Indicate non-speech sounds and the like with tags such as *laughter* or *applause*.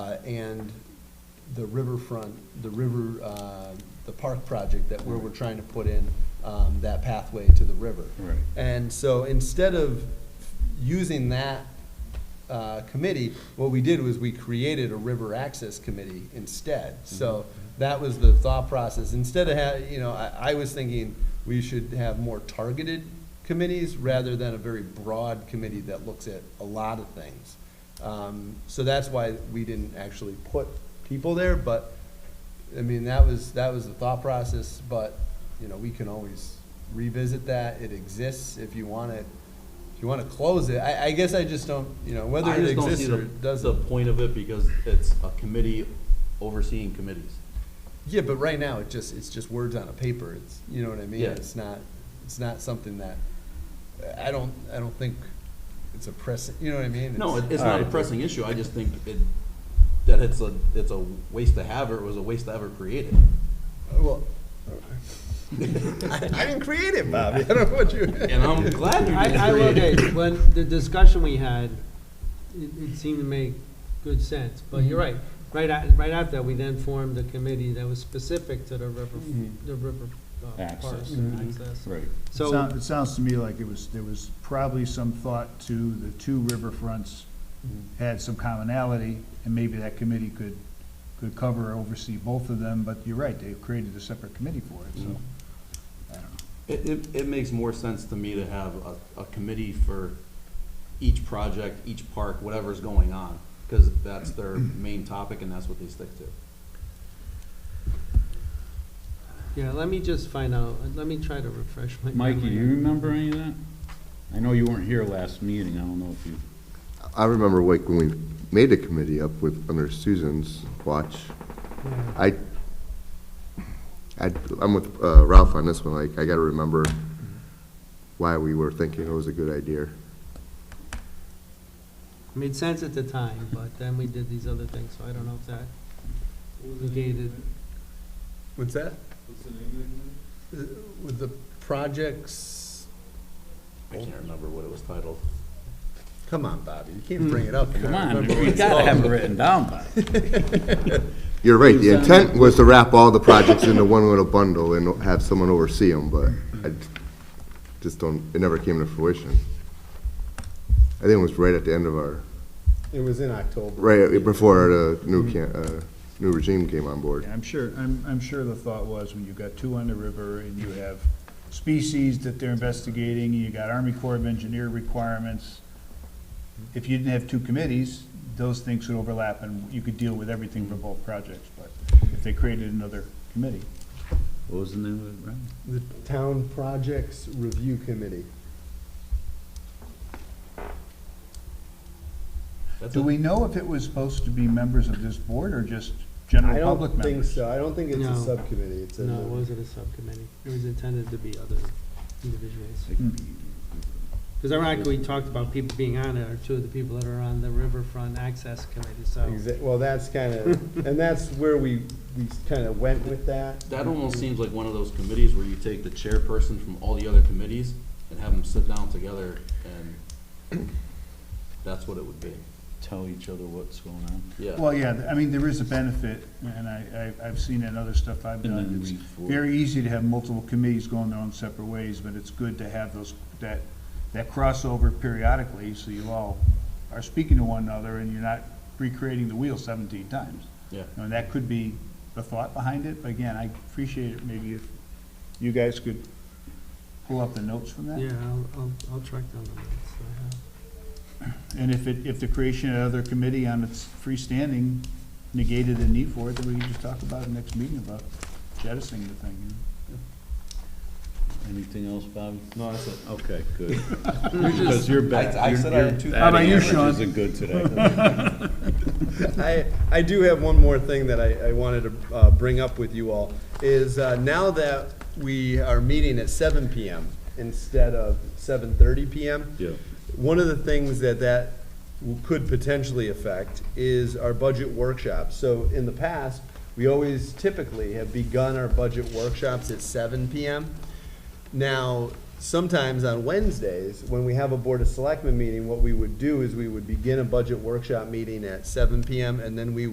uh, and the riverfront, the river, uh, the park project that where we're trying to put in um, that pathway to the river. Right. And so instead of using that uh, committee, what we did was we created a river access committee instead. So that was the thought process. Instead of, ha- you know, I, I was thinking we should have more targeted committees rather than a very broad committee that looks at a lot of things. Um, So that's why we didn't actually put people there, but, I mean, that was, that was the thought process, but, you know, we can always revisit that. It exists if you want it, if you want to close it. I, I guess I just don't, you know, whether I it just don't see exists the- or it The doesn't. point of it, because it's a committee overseeing committees. Yeah, but right now, it just, it's just words on a paper. It's, you know what I mean? Yeah. It's not, it's not something that, I don't, I don't think it's a press, you know what I mean? No, it- it's All not a right. pressing issue, I just think it, that it's a, it's a waste to have, or it was a waste to ever create *laughs* it. Well, *laughs* I I didn't create it, Bobby. I don't know what you. *laughs* And I'm glad you I, I didn't will, create okay, it. when the discussion we had, it, it seemed to make good sense, but you're right. Right a right after that, we then formed a committee that was specific to the river, Mhm. the river, uh, Access. parks and access. Right. It So, sounds, it sounds to me like it was, there was probably some thought to the two riverfronts had some commonality, and maybe that committee could, could cover or oversee both of them, but you're right, they've created a separate committee for it, so. I don't know. It, it, it makes more sense to me to have a, a committee for each project, each park, whatever's going on, because that's their main topic and that's what they stick to. yeah, let me just find out, let me try to refresh my memory. Mikey, you remember any of that? I know you weren't here last meeting, I don't know if you, I remember like when we made a committee up with, under Susan's watch, Yeah. I, I, I'm with uh, Ralph on this one, like, I gotta remember why we were thinking it was a good idea. It Made sense at the time, but then we did these other things, so I don't know if that negated, What's that? What's the name of it? With the projects, I can't remember what it was titled. come on, Bobby, you can't bring it up. and come not on, remember what you it's gotta have it called. written down by. You're right, the intent was to wrap all the projects into one little bundle and have someone oversee them, but I just don't, it never came to fruition. I think it was right at the end of our, It was in October. right before the new can, uh, new regime came on board. Yeah, I'm sure, I'm, I'm sure the thought was when you've got two on the river and you have species that they're investigating, and you got Army Corps of Engineer requirements. If you didn't have two committees, those things would overlap and you could deal with everything for both projects, but if they created another committee. What was the name of it, Brian? The Town Projects Review Committee. That's Do it. we know if it was supposed to be members of this board or just general public members? I don't think it's a No. subcommittee, it's no, it wasn't a subcommittee, it was intended to be other individuals. Because ironically, we talked about people being on it, are two of the people that are on the Riverfront Access Committee, so. Well, that's kind of, and that's where we, we kind of went with that. That almost seems like one of those committees where you take the chairperson from all the other committees and have them sit down together and that's what it would be, Tell each other what's going on. yeah. Well, yeah, I mean, there is a benefit, and I, I- I've seen it in other stuff I've And done. then It's we forward. very easy to have multiple committees going their own separate ways, but it's good to have those, that, that crossover periodically, so you all are speaking to one another, and you're not recreating the wheel seventeen times. Yeah. You know, that could be the thought behind it, but again, I appreciate it, maybe if you guys could pull up the notes from that. Yeah, I'll, I'll, I'll track down the minutes that I have. And if it, if the creation of another committee on its freestanding negated the need for it, then we can just talk about it next meeting about jettisoning the thing. Anything else, Bob? No, that's it. Okay, good. Because you're back. I- I said I had two- How about you, Sean? Isn't good today. *laughs* I, I do have one more thing that I, I wanted to uh, bring up with you all, is uh, now that we are meeting at seven PM instead of seven thirty PM. Yeah. One of the things that that w- could potentially affect is our budget workshops. So in the past, we always typically have begun our budget workshops at seven PM. Now, sometimes on Wednesdays, when we have a Board of Selectmen meeting, what we would do is we would begin a budget workshop meeting at seven PM, and then we